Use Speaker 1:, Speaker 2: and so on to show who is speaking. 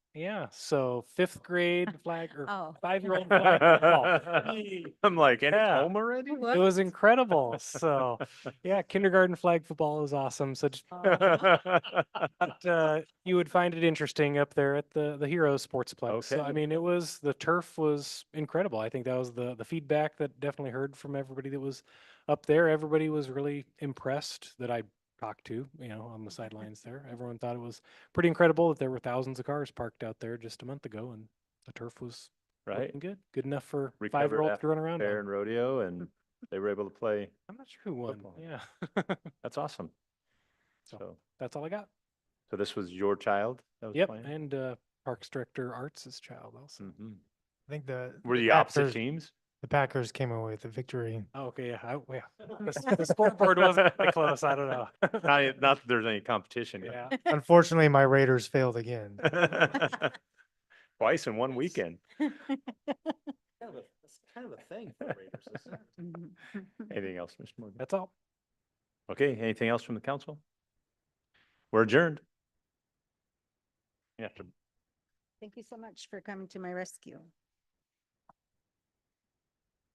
Speaker 1: Yeah, so fifth grade flag or
Speaker 2: Oh.
Speaker 1: five-year-old flag football.
Speaker 3: I'm like, and it's
Speaker 1: Yeah.
Speaker 3: home already?
Speaker 4: Oh,
Speaker 1: It was incredible. So, yeah, kindergarten flag football is awesome. So just
Speaker 3: Oh.
Speaker 1: thought, uh, you would find it interesting up there at the the Heroes Sportsplex. So I
Speaker 3: Okay.
Speaker 1: mean, it was the turf was incredible. I think that was the the feedback that definitely heard from everybody that was up there. Everybody was really impressed that I talked to, you know, on the sidelines there. Everyone thought it was pretty incredible that there were thousands of cars parked out there just a month ago and the turf was
Speaker 3: right?
Speaker 1: looking good. Good enough for
Speaker 3: Recovered
Speaker 1: five year olds
Speaker 3: after
Speaker 1: to run around. on.
Speaker 3: Fair and rodeo, and they were able to play.
Speaker 1: I'm not sure who won.
Speaker 3: football.
Speaker 1: Yeah.
Speaker 3: That's awesome.
Speaker 1: So-
Speaker 3: So,
Speaker 1: That's all I got.
Speaker 3: so this was your child that was
Speaker 1: Yep.
Speaker 3: playing?
Speaker 1: And uh Parks Director Arts' child also.
Speaker 3: Mhm.
Speaker 5: I think the.
Speaker 3: Were the opposite
Speaker 5: Packers-
Speaker 3: teams?
Speaker 5: The Packers came away with the victory.
Speaker 1: Oh, okay, yeah, I, yeah. The s- The scoreboard wasn't that close. I don't know.
Speaker 3: Not, e- not that there's any competition.
Speaker 1: Yeah,
Speaker 5: Unfortunately, my Raiders failed again.
Speaker 3: but- Twice in one weekend.
Speaker 2: Mm-hmm.
Speaker 4: Kind of a- It's kind of a thing for Raiders, isn't it?
Speaker 3: Anything else, Mr. Morgan?
Speaker 1: that's all.
Speaker 3: Okay, anything else from the council? We're adjourned. You have to
Speaker 2: Thank you so much for coming to my rescue.